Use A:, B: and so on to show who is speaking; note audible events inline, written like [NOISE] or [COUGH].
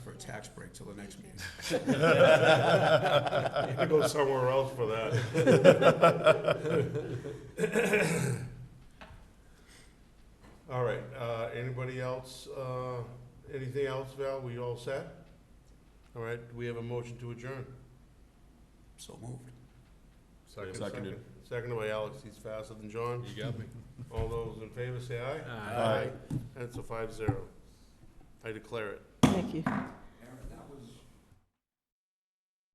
A: tax break till the next meeting.
B: I go somewhere else for that. [COUGHS] All right, uh, anybody else, uh, anything else, Val? We all set? All right, we have a motion to adjourn.
A: So moved.
B: Second,
C: Seconded.
B: second. Seconded by Alex, he's faster than John.
C: You got me.
B: All those in favor, say aye.
C: Aye.
B: And it's a five zero. I declare it.
D: Thank you.